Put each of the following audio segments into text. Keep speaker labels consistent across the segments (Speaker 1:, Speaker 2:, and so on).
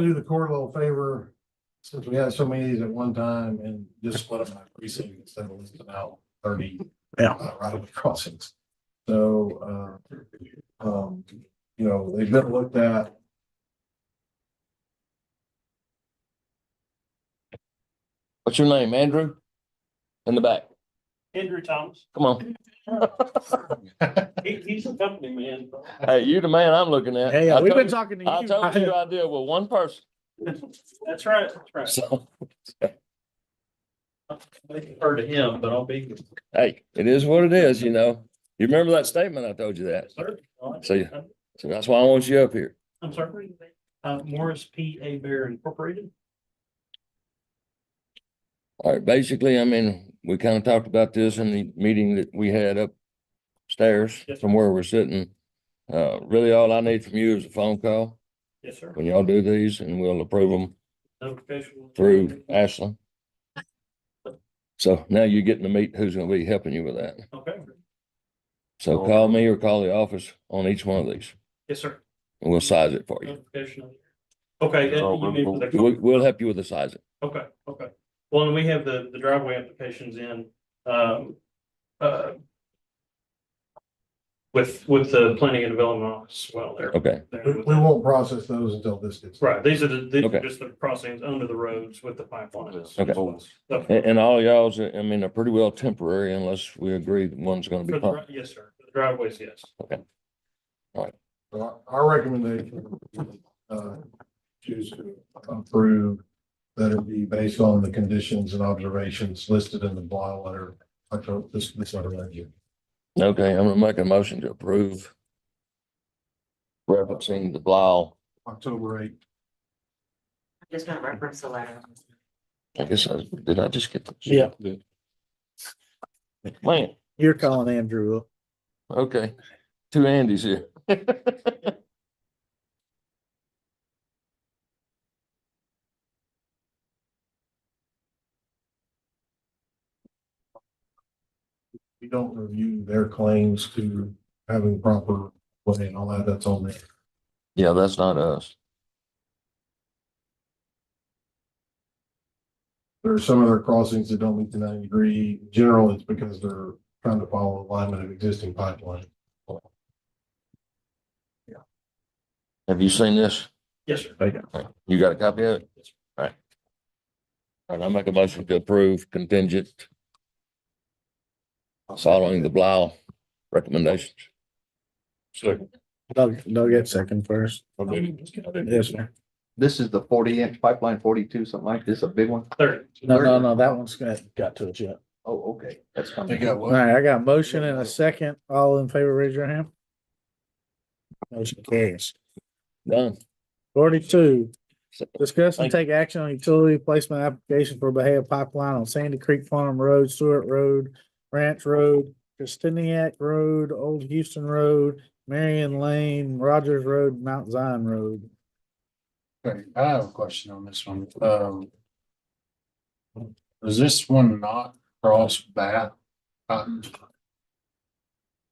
Speaker 1: do the court a little favor, since we had so many of these at one time and just split them by precinct instead of listing out thirty.
Speaker 2: Yeah.
Speaker 1: uh, Right away crossings. So, uh, um, you know, they've been looked at.
Speaker 3: What's your name, Andrew? In the back,
Speaker 4: Andrew Thomas,
Speaker 3: come on.
Speaker 4: he, he's a company man. bro.
Speaker 3: Hey, you the man I'm looking at.
Speaker 2: Hey,
Speaker 3: I
Speaker 2: uh, we've
Speaker 3: told
Speaker 2: been talking to
Speaker 3: you- I told
Speaker 2: you.
Speaker 3: you I deal with one person,
Speaker 4: That's right, that's right.
Speaker 3: so,
Speaker 4: I've Heard of him, but I'll be.
Speaker 3: hey, it is what it is, you know. You remember that statement I told you that? So, yeah. So that's why I want you up here.
Speaker 4: I'm sorry, uh, Morris P. A. Bear Incorporated.
Speaker 3: All right, basically, I mean, we kind of talked about this in the meeting that we had upstairs
Speaker 4: Yes.
Speaker 3: from where we're sitting. Uh, really, all I need from you is a phone call
Speaker 4: Yes, sir.
Speaker 3: when y'all do these and we'll approve them
Speaker 4: Notification.
Speaker 3: through Ashland. So now you're getting to meet who's gonna be helping you with that.
Speaker 4: Okay,
Speaker 3: So call me or call the office on each one of these
Speaker 4: yes, sir.
Speaker 3: and we'll size it for you.
Speaker 4: Notification. Okay, that- you mean for
Speaker 3: We'll,
Speaker 4: the-
Speaker 3: we'll help you with the sizing.
Speaker 4: okay, okay. Well, and we have the, the driveway applications in, um, uh, with, with the planning and development office, as well, there.
Speaker 3: Okay,
Speaker 1: We, we won't process those until this gets.
Speaker 4: Right, these are the, these
Speaker 3: Okay.
Speaker 4: are just the crossings under the roads with the pipelines.
Speaker 3: Okay.
Speaker 4: So-
Speaker 3: and, and all y'all's, I mean, are pretty well temporary unless we agree that one's gonna
Speaker 4: For
Speaker 3: be
Speaker 4: the
Speaker 3: permanent.
Speaker 4: dri- Yes, sir. For The driveways, yes.
Speaker 1: Our our recommendation, uh, choose to approve that it be based on the conditions and observations listed in the bylaw letter. I told this, this letter right here.
Speaker 3: Okay, I'm gonna make a motion to approve. Referencing the Blau,
Speaker 1: October eighth.
Speaker 5: Just gonna reference the letter.
Speaker 3: I guess I, did I just get? this?
Speaker 2: Yeah.
Speaker 3: Man,
Speaker 2: You're calling Andrew. up.
Speaker 3: okay, two Andys here.
Speaker 1: We don't review their claims to having proper way and all that. That's on there.
Speaker 3: Yeah, that's not us.
Speaker 1: There are some other crossings that don't meet the ninety degree. Generally, it's because they're trying to follow alignment of existing pipeline.
Speaker 3: Have you seen this?
Speaker 4: Yes, sir.
Speaker 3: You got a copy of it? All right. All right, I make a motion to approve contingent following the Blau recommendations. Second.
Speaker 2: Doug, Doug get second first. Yes, sir.
Speaker 6: This is the forty inch pipeline, forty-two, something like this, a big one?
Speaker 4: Third.
Speaker 2: No, no, no, that one's got, got to it yet.
Speaker 6: Oh, okay, that's
Speaker 1: They
Speaker 6: coming.
Speaker 1: got
Speaker 2: All
Speaker 1: what?
Speaker 2: right, I got a motion and a second. All in favor, raise your hand. Motion carries.
Speaker 3: Done.
Speaker 2: Forty-two, discuss and take action on utility placement application for Bahia Pipeline on Sandy Creek Farm Road, Stewart Road, Ranch Road, Christiniac Road, Old Houston Road, Marion Lane, Rogers Road, Mount Zion Road.
Speaker 7: Okay, I have a question on this one. Um. Does this one not cross Bath? Cotton?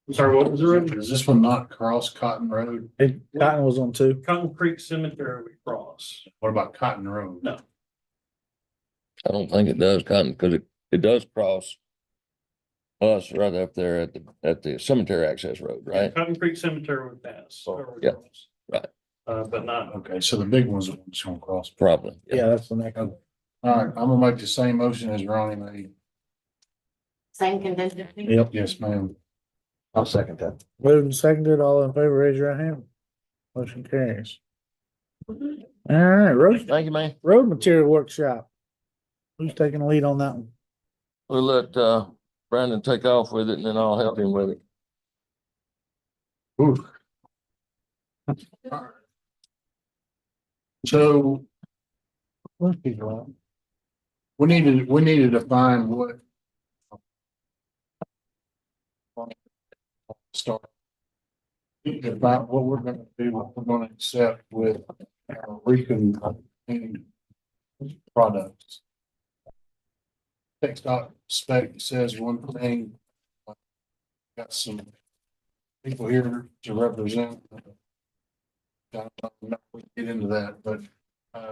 Speaker 4: I'm sorry, what was the road?
Speaker 7: Does this one not cross Cotton Road?
Speaker 2: It, Cotton was on two.
Speaker 4: Cotton Creek Cemetery we cross.
Speaker 7: What about Cotton Road?
Speaker 4: No.
Speaker 3: I don't think it does, Cotton, because it, it does cross us right up there at the, at the cemetery access road, right?
Speaker 4: Cotton Creek Cemetery we pass.
Speaker 7: Oh,
Speaker 4: or we
Speaker 3: yeah.
Speaker 4: cross.
Speaker 3: Right.
Speaker 4: Uh, but not,
Speaker 7: Okay, so the big one's the one that's gonna cross.
Speaker 3: Probably.
Speaker 2: Yeah, that's the next one.
Speaker 7: All right, I'm gonna make the same motion as Ronnie made.
Speaker 5: Same condition.
Speaker 2: Yep.
Speaker 7: Yes, ma'am.
Speaker 6: I'll second that.
Speaker 2: Moved and seconded, all in favor, raise your right hand. Motion carries. All right, road,
Speaker 3: Thank you, man.
Speaker 2: road material workshop. Who's taking the lead on that one?
Speaker 3: We'll let, uh, Brandon take off with it and then I'll help him with it.
Speaker 7: So
Speaker 2: Most people aren't.
Speaker 7: we needed, we needed to find what. Start. About what we're gonna do, what we're gonna accept with uh, Rican and uh, products. Text dot spec says one thing. Got some people here to represent. Don't know if we can Get into that, but